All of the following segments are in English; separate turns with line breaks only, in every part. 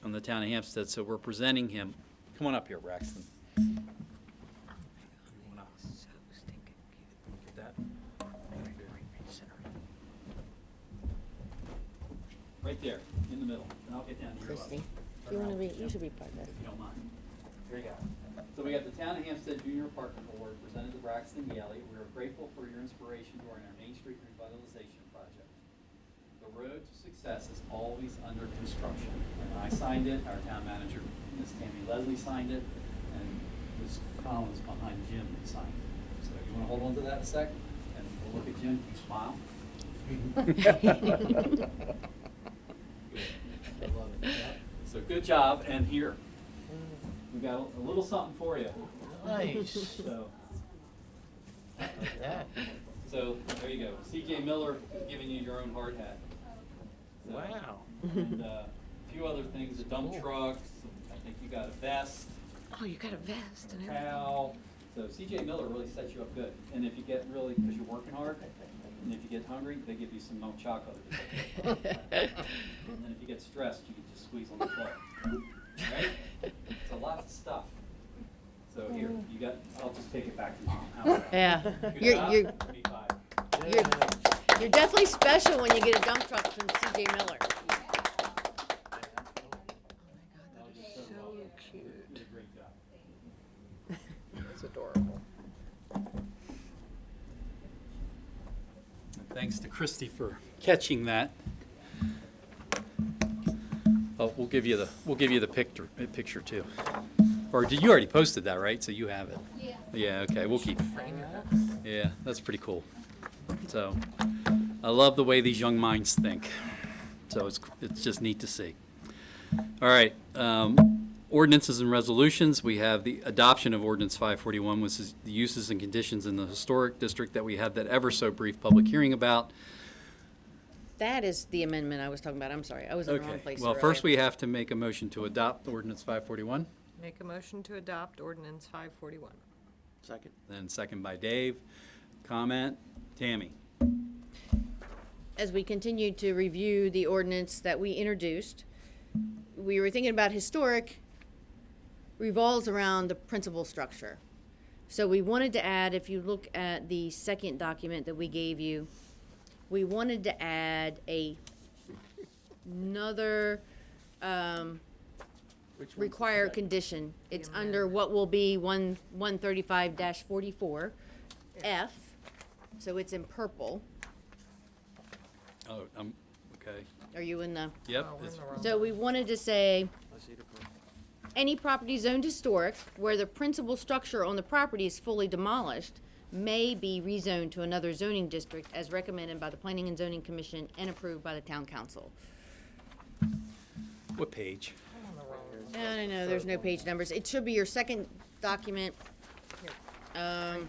from the town of Hampstead, so we're presenting him. Come on up here, Braxton. Get that? Right there, in the middle, and I'll get down to your level.
Christie, do you want to read, you should read part of
If
this.
you don't mind. Here you go. So we got the Town of Hampstead Junior Apartment Award presented to Braxton Galey. We are grateful for your inspiration during our Main Street revitalization project. The road to success is always under construction. And I signed it, our town manager, Ms. Tammy Leslie signed it, and Ms. Collins behind Jim signed it. So you wanna hold on to that a sec? And we'll look at Jim, you smile. Good. I love it. Yep. So good job, and here, we got a little something for you.
Nice.
So,
Yeah.
so there you go. CJ Miller is giving you your own hard hat. So-
Wow.
And uh, a few other things, a dump
Cool.
truck, some- I think you got a vest,
Oh, you got a vest and
a
everything.
towel. So CJ Miller really sets you up good. And if you get really, because you're working hard, and if you get hungry, they give you some milk chocolate. And then if you get stressed, you can just squeeze on the plug. Right? It's a lot of stuff. So here, you got, I'll just take it back to mom. How's that?
Yeah,
Good
you're,
job.
you're,
Give me five.
you're, you're definitely special when you get a dump truck from CJ Miller.
That was just so well done. You did a great job.
That's adorable.
And Thanks to Christy for catching that. Oh, we'll give you the, we'll give you the picture, uh, picture too. Or did, you already posted that, right? So you have it? Yeah. Yeah, okay, we'll keep, yeah, that's pretty cool. So, I love the way these young minds think. So it's, it's just neat to see. All right, um, ordinances and resolutions, we have the adoption of ordinance five forty-one, which is the uses and conditions in the historic district that we had that ever so brief public hearing about.
That is the amendment I was talking about. I'm sorry, I was in the wrong place
Well, first
earlier.
we have to make a motion to adopt ordinance five forty-one,
Make a motion to adopt ordinance five forty-one.
Second.
then second by Dave. Comment, Tammy?
As we continued to review the ordinance that we introduced, we were thinking about historic revolves around the principal structure. So we wanted to add, if you look at the second document that we gave you, we wanted to add a another, um,
Which one's the
require
second?
condition. It's under what will be one, one thirty-five forty-four, F, so it's in purple.
Oh, um, okay,
Are you in the,
yep.
Oh, we're in the wrong
so we wanted to say,
I see the purple.
any property zoned historic where the principal structure on the property is fully demolished may be rezoned to another zoning district as recommended by the Planning and Zoning Commission and approved by the Town Council.
What page?
I'm on the wrong one.
No, no, no, there's no page numbers. It should be your second document. Um,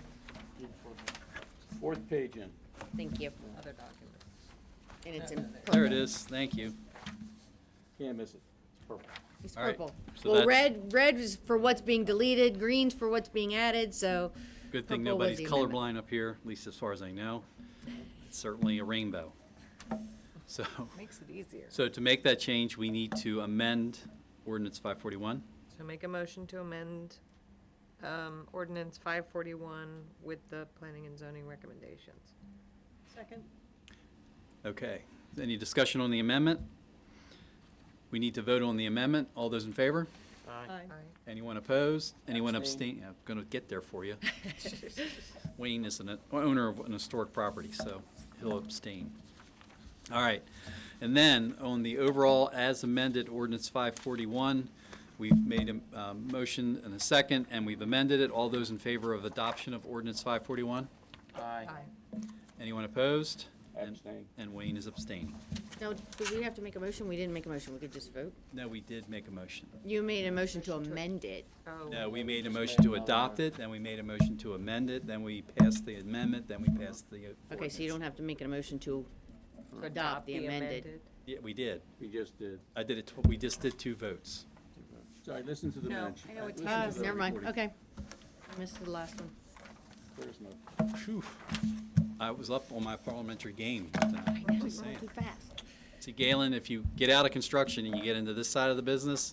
Fourth page in.
thank you,
Other document.
and it's in purple.
There it is, thank you.
Can't miss it. It's purple.
It's
All right,
purple.
so
Well,
that's-
red, red is for what's being deleted, green's for what's being added, so.
Good thing
purple was
nobody's
the amendment.
colorblind up here, at least as far as I know. It's certainly a rainbow. So,
Makes it easier.
so to make that change, we need to amend ordinance five forty-one.
So make a motion to amend, um, ordinance five forty-one with the planning and zoning recommendations. Second.
Okay, any discussion on the amendment? We need to vote on the amendment. All those in favor?
Aye.
Anyone opposed? Anyone
Abstain.
abstain? I'm gonna get there for you. Wayne is an owner of an historic property, so he'll abstain. All right, and then on the overall as amended ordinance five forty-one, we've made a, um, motion and a second, and we've amended it. All those in favor of adoption of ordinance five forty-one?
Aye.
Aye.
Anyone opposed? And-
Abstain.
And Wayne is abstaining.
Now, do we have to make a motion? We didn't make a motion, we could just vote.
No, we did make a motion.
You made a motion to amend it.
Oh.
No, Uh, we made a motion
made
to
another.
adopt it, then we made a motion to amend it, then we passed the amendment, then we passed the uh,
Okay, so you don't have to make a motion to
To
adopt the amended.
Yeah, we did.
We just did.
I did it, tw- we just did two votes.
Sorry, listen to the
No,
minutes.
I know what
Listen
you
to
Oh,
the
never mind,
recording.
okay. I Missed the last one.
There's no-
Phew. I was up on my parliamentary game. just
I know,
saying.
too fast.
See, Galen, if you get out of construction and you get into this side of the business,